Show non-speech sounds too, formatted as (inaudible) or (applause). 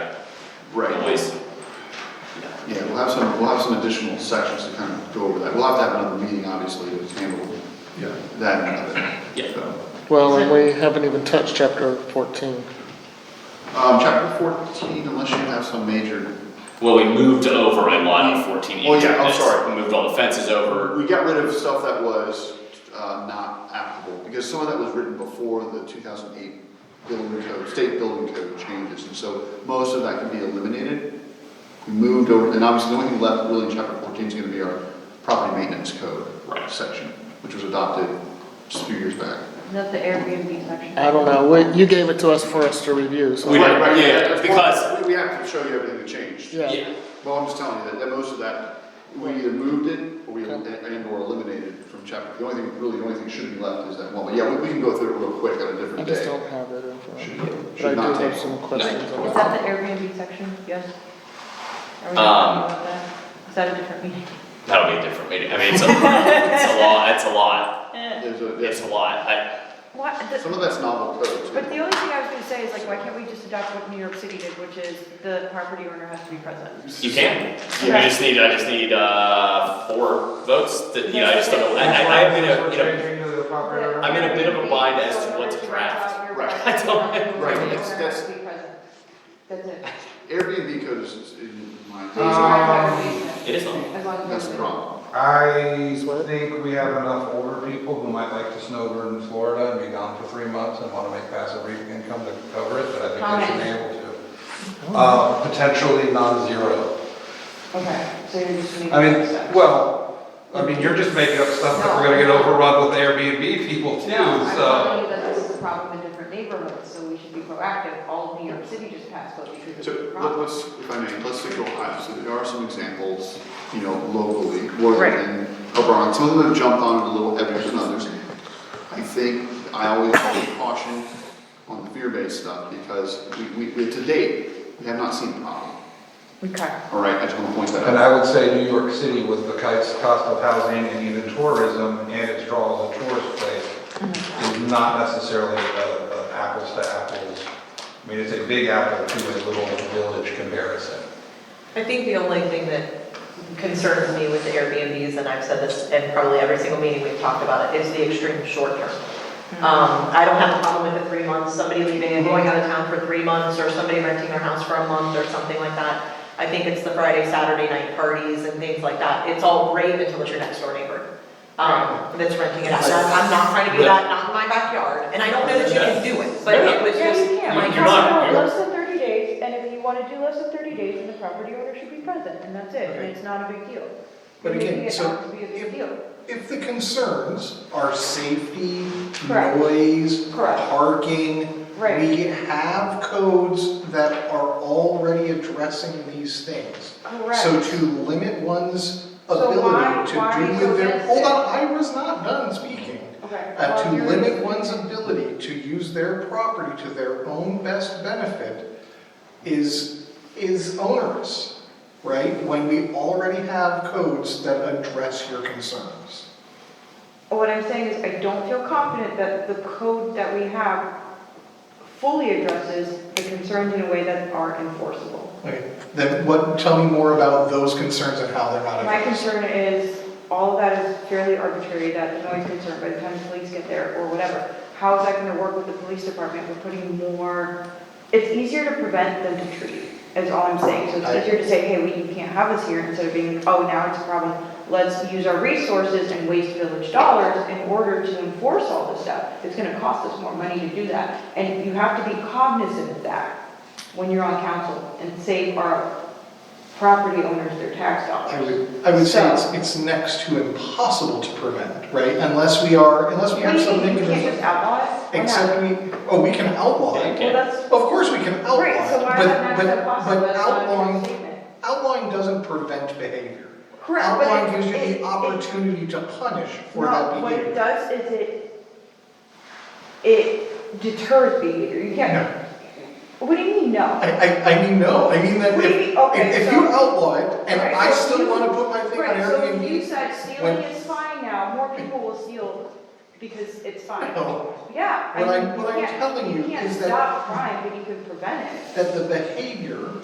Right. At least, Yeah, we'll have some, we'll have some additional sections to kind of go over that. We'll have to have another meeting, obviously, to handle that and other. Yeah. So, Well, and we haven't even touched chapter fourteen. Um, chapter fourteen, unless you have some major, well, we moved over a lot of fourteen E Oh, yeah, I'm units. sorry. We moved all the fences over. we got rid of stuff that was, uh, not applicable, because some of that was written before the two thousand eight building code, state building code changes, and so most of that can be eliminated. We Moved over, and obviously, the only thing left really in chapter fourteen is gonna be our property maintenance code. Right. Section, which was adopted just a few years back. Not the Airbnb section. I don't know, we, you gave it to us for us to review, so. We Right, don't- right, yeah, that's because- part- we- We have to show you everything that changed. Yeah. Well, I'm just telling you that, that most of that, we either moved it, or we, and and or eliminated it from chapter, the only thing, really, the only thing should be left is that one, but yeah, we, we can go through it real quick on a I different just don't day. have that in front Should- of me, should but I not do have take- some no. questions on Is that. that the Airbnb section? Yes? Are we Um, talking about that? Is that a different meeting? That'll be a different meeting. I mean, it's a, it's a lot, it's a lot, There's a, it's there's, a lot. I, What, some the- of that's novel code. too. but the only thing I was gonna say is like, why can't we just adopt what New York City did, which is the property owner has to be present? you can. Yeah. I just need, I just need, uh, four votes to, you know, I just don't, I, I, I'm in a, you know, I'm in a bit of a bind as to what to draft. Right. (laughs) I don't- right, Property that's- owner that's- has to be present. That's it. Airbnb code is, is in my, Please provide representation, It is long. as long as Um, that's the we're- problem. I think we have enough older people who might like to snowbird in Florida and be gone for three months and want to make passive income to cover it, but I think they should be able to. Uh, Potentially non-zero. Okay, so you're just making. I mean, stuff. well, I mean, you're just making up stuff that we're gonna get overrun with Airbnb people too, No, I'm so. telling you that this is a problem in different neighborhoods, so we should be proactive. All of New York City just passed code because it's So, a let- problem. let's, if I may, let's think Ohio, Uh, so there are some examples, you know, locally, Worthington, Oberon, some of them have jumped on it a little heavier than others. I think I always caution on the fear-based stuff, because we, we, to date, we have not seen a problem, Okay. all right, I just wanna point that And out. I would say New York City with the cost cost of housing and even tourism and its draw as a tourist place is not necessarily a- a apples to apples. I mean, it's a big apple to a little village comparison. I think the only thing that concerns me with the Airbnbs, and I've said this in probably every single meeting we've talked about it, is the extreme short term. Hmm. Um, I don't have a problem with the three months, somebody leaving and going out of town for three months, or somebody renting their house for a month or something like that. I think it's the Friday, Saturday night parties and things like that. It's all great until it's your next door neighbor, um, that's renting it out. And I'm I'm not trying to do that, not in my backyard, and I don't know that you can do it, but it was Yeah, just. you can. You- My you're not- cousin, no, you're- less than thirty days, and if you wanna do less than thirty days, then the property owner should be present, and that's it, and it's not a big deal. But Making again, it so not to be a big deal. If the concerns are safety, Correct. noise, Correct. parking, Right. we have codes that are already addressing these things. So to limit one's So why- ability why are to you do with their, against hold it? on, I was not done speaking. Okay. Uh, Well, to you're- limit one's ability to use their property to their own best benefit is, is onerous, right? When we already have codes that address your concerns. What I'm saying is I don't feel confident that the code that we have fully addresses the concerns in a way that are enforceable. Okay, Then what, tell me more about those concerns and how they're not My addressed. concern is, all of that is fairly arbitrary, that noise concern, by the time the police get there, or whatever. How is that gonna work with the police department, we're putting more, it's easier to prevent than to treat, is all I'm saying. So I- it's easier to say, hey, we, you can't have this here, instead of being, like, oh, now it's a problem, let's use our resources and waste village dollars in order to enforce all this stuff. It's gonna cost us more money to do that, and you have to be cognizant of that when you're on council, and save our property owners their tax dollars. I would, I would say it's, it's next to impossible to prevent, right? Unless we are, unless we What have do you something. mean, you can't to- just outlaw it? Why not? Except we, oh, we can outlaw it. Well, that's, Of course we can outlaw right, so it, why is that but, not but, so possible? but That's not a true outlawing, statement. outlawing doesn't prevent behavior. Correct, but Outlawing it- gives you it- the it- opportunity to punish for No, that what it behavior. does is it, it deters behavior, you No. can't, what do you mean, no? I, I, I mean, no, I mean that What do you if, mean? Okay, if- if so- you outlaw it and Right, I so still you- wanna put my thing on Right, so if you Airbnb. said stealing when- is fine now, more people will steal because it's fine. No. Yeah, I What mean, I'm- you what I'm can't- telling you can't is that- stop crime, but you can prevent it. that the behavior